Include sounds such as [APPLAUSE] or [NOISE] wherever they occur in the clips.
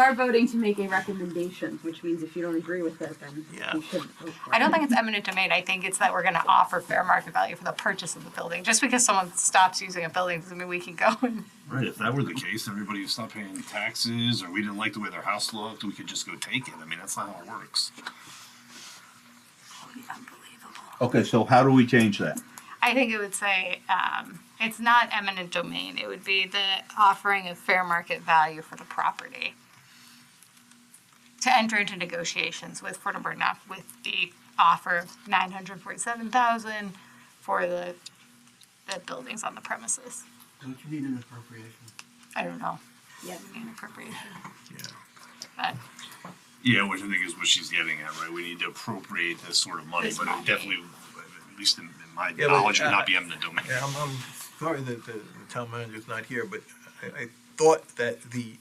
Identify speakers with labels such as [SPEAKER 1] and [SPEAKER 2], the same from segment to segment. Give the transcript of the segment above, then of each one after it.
[SPEAKER 1] are voting to make a recommendation, which means if you don't agree with it, then
[SPEAKER 2] Yeah.
[SPEAKER 1] you shouldn't vote for it.
[SPEAKER 3] I don't think it's eminent domain. I think it's that we're gonna offer fair market value for the purchase of the building. Just because someone stops using a building doesn't mean we can go and
[SPEAKER 2] Right, if that were the case, everybody would stop paying taxes, or we didn't like the way their house looked, we could just go take it. I mean, that's not how it works.
[SPEAKER 4] Okay, so how do we change that?
[SPEAKER 3] I think it would say, um, it's not eminent domain. It would be the offering of fair market value for the property. To enter into negotiations with Fort Burnup with the offer of nine hundred forty-seven thousand for the, the buildings on the premises.
[SPEAKER 5] Don't you need an appropriation?
[SPEAKER 3] I don't know,
[SPEAKER 1] Yeah.
[SPEAKER 3] inappropriate,
[SPEAKER 2] Yeah.
[SPEAKER 3] but
[SPEAKER 2] Yeah, which I think is what she's getting at, right? We need to appropriate this sort of money,
[SPEAKER 3] This
[SPEAKER 2] but
[SPEAKER 3] money.
[SPEAKER 2] it definitely, at least in, in my
[SPEAKER 5] Yeah, but,
[SPEAKER 2] knowledge, would
[SPEAKER 5] uh,
[SPEAKER 2] not be eminent domain.
[SPEAKER 5] Yeah, I'm, I'm sorry that the the town manager's not here, but I, I thought that the,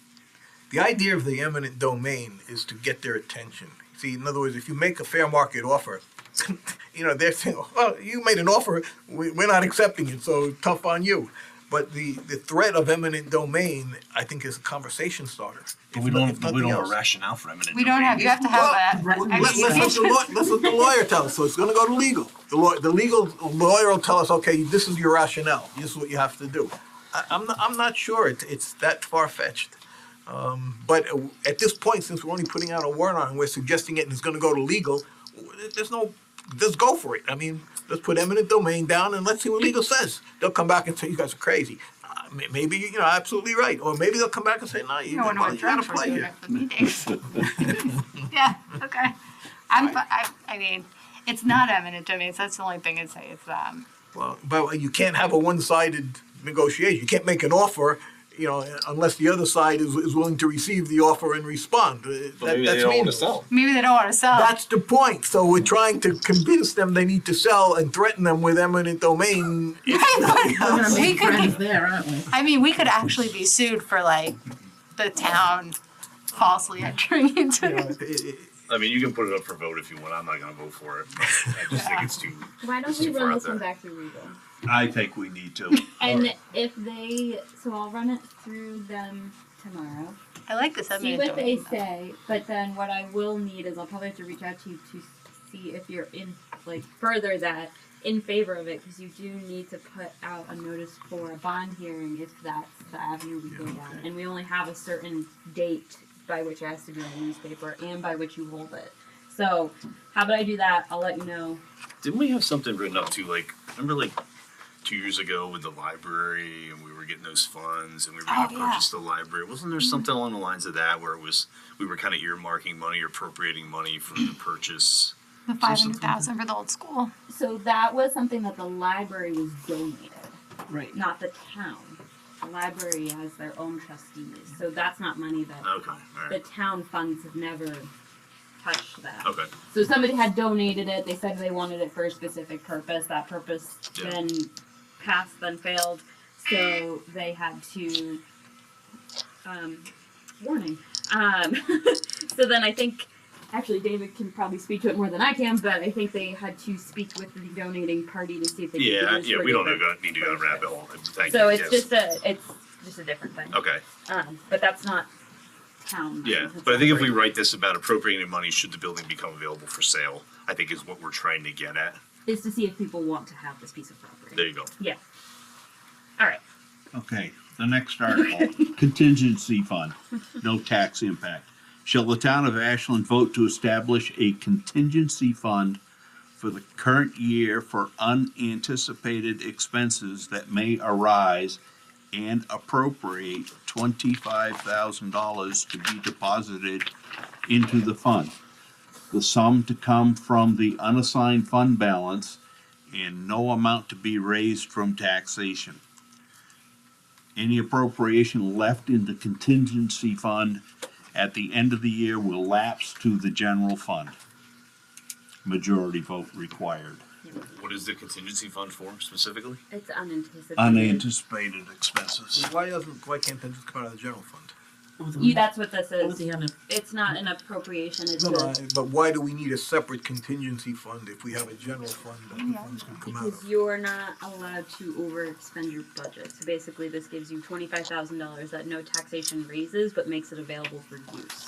[SPEAKER 5] the idea of the eminent domain is to get their attention. See, in other words, if you make a fair market offer, [LAUGHS] you know, they're saying, oh, you made an offer, we, we're not accepting it, so tough on you. But the, the threat of eminent domain, I think, is a conversation starter.
[SPEAKER 2] But
[SPEAKER 5] if
[SPEAKER 2] we
[SPEAKER 5] no-
[SPEAKER 2] don't,
[SPEAKER 5] if
[SPEAKER 2] we
[SPEAKER 5] nothing
[SPEAKER 2] don't have a
[SPEAKER 5] else.
[SPEAKER 2] rationale for eminent
[SPEAKER 3] we
[SPEAKER 2] domain.
[SPEAKER 3] don't have, you have to have
[SPEAKER 5] Well,
[SPEAKER 3] a.
[SPEAKER 5] let- Let's let the law- let's let the lawyer tell us, so it's gonna go to legal. The law, the legal lawyer will tell us, okay, this is your rationale, this is what you have to do. I, I'm, not- I'm not sure it's, it's that far-fetched. Um, but uh, at this point, since we're only putting out a warrant on, it, we're suggesting it and it's gonna go to legal, w- there's no, let's go for it. I mean, let's put eminent domain down and let's see what legal says. They'll come back and say, you guys are crazy. Uh, may- Maybe, you know, absolutely right, or maybe they'll come back and say, no, you
[SPEAKER 3] No one
[SPEAKER 5] gotta
[SPEAKER 3] knows
[SPEAKER 5] you
[SPEAKER 3] what drugs
[SPEAKER 5] gotta
[SPEAKER 3] we're
[SPEAKER 5] play
[SPEAKER 3] doing
[SPEAKER 5] here.
[SPEAKER 3] at the meetings.
[SPEAKER 5] [LAUGHS]
[SPEAKER 3] Yeah, okay. I'm, fi- I, I mean, it's not eminent domain, so that's the only thing I'd say is, um,
[SPEAKER 5] Well, but you can't have a one-sided negotiation. You can't make an offer, you know, unless the other side is, is willing to receive the offer and respond. Uh, that- that's meaningless.
[SPEAKER 3] maybe they don't wanna sell. [LAUGHS]
[SPEAKER 5] That's the point. So we're trying to convince them they need to sell and threaten them with eminent domain.
[SPEAKER 1] We're
[SPEAKER 5] [LAUGHS]
[SPEAKER 1] gonna
[SPEAKER 3] We
[SPEAKER 1] make
[SPEAKER 3] could-
[SPEAKER 1] friends there, aren't we?
[SPEAKER 3] I mean, we could actually be sued for like the town falsely entering
[SPEAKER 5] [LAUGHS] You know,
[SPEAKER 3] into.
[SPEAKER 5] it- it-
[SPEAKER 2] I mean, you can put it up for vote if you want. I'm not gonna vote for it. but I just think it's too.
[SPEAKER 6] Why don't
[SPEAKER 2] It's
[SPEAKER 6] we
[SPEAKER 2] too
[SPEAKER 6] run
[SPEAKER 2] far
[SPEAKER 6] this
[SPEAKER 2] out
[SPEAKER 6] one
[SPEAKER 2] there.
[SPEAKER 6] back through legal?
[SPEAKER 4] I think we need to.
[SPEAKER 6] And if they, so I'll run it through them tomorrow.
[SPEAKER 3] I like this
[SPEAKER 6] see
[SPEAKER 3] eminent
[SPEAKER 6] what they
[SPEAKER 3] domain.
[SPEAKER 6] say, but then what I will need is I'll probably have to reach out to you to see if you're in, like, further that in favor of it, because you do need to put out a notice for a bond hearing if that's the avenue we go down. And we only have a certain date by which it has to be in the newspaper and by which you hold it. So, how about I do that? I'll let you know.
[SPEAKER 2] Didn't we have something written up to like, remember like two years ago with the library and we were getting those funds and we were gonna
[SPEAKER 3] Oh, yeah.
[SPEAKER 2] purchase the library? Wasn't
[SPEAKER 6] Mm-hmm.
[SPEAKER 2] there something along the lines of that where it was, we were kind of earmarking money or appropriating money
[SPEAKER 6] [CLEARS THROAT]
[SPEAKER 2] for the purchase?
[SPEAKER 3] The five hundred thousand for the old school.
[SPEAKER 6] So, that was something that the library was donated.
[SPEAKER 1] Right.
[SPEAKER 6] not the town. The library has their own trustees, so that's not money that
[SPEAKER 2] Okay, all
[SPEAKER 6] the
[SPEAKER 2] right,
[SPEAKER 6] town funds have never touched that.
[SPEAKER 2] okay.
[SPEAKER 6] So somebody had donated it. They said they wanted it for a specific purpose. That purpose
[SPEAKER 2] Yeah.
[SPEAKER 6] then passed, then failed. So they had to. Um, warning. Um, [LAUGHS] so then I think, actually, David can probably speak to it more than I can, but I think they had to speak with the donating party to see if they could do
[SPEAKER 2] Yeah,
[SPEAKER 6] this
[SPEAKER 2] yeah,
[SPEAKER 6] for
[SPEAKER 2] we don't
[SPEAKER 6] different-
[SPEAKER 2] go- need to go down a rabbit hole. Thank
[SPEAKER 6] so
[SPEAKER 2] you,
[SPEAKER 6] it's
[SPEAKER 2] yes.
[SPEAKER 6] just a it's just a different thing.
[SPEAKER 2] Okay,
[SPEAKER 6] Um, but that's not town.
[SPEAKER 2] yeah, but I think if we write this about appropriating money should the building become available for sale, I think is what we're trying to get at.
[SPEAKER 6] is to see if people want to have this piece of property.
[SPEAKER 2] There you go.
[SPEAKER 6] Yeah. All right.
[SPEAKER 4] Okay, the next article, contingency fund, no tax impact. Shall the town of Ashland vote to establish a contingency fund for the current year for unanticipated expenses that may arise and appropriate twenty-five thousand dollars to be deposited into the fund? The sum to come from the unassigned fund balance and no amount to be raised from taxation any appropriation left in the contingency fund at the end of the year will lapse to the general fund. Majority vote required.
[SPEAKER 2] What is the contingency fund for specifically?
[SPEAKER 6] It's unanticipated.
[SPEAKER 4] Unanticipated expenses.
[SPEAKER 5] Why doesn't, why can't that just come out of the general fund?
[SPEAKER 6] You, that's what this is.
[SPEAKER 7] Louisiana.
[SPEAKER 6] It's not an appropriation, it's
[SPEAKER 5] No,
[SPEAKER 6] a.
[SPEAKER 5] no, I- but why do we need a separate contingency fund if we have a general fund that the funds can come out
[SPEAKER 6] Because
[SPEAKER 5] of?
[SPEAKER 6] you're not allowed to overexpend your budget. So basically, this gives you twenty-five thousand dollars that no taxation raises, but makes it available for use.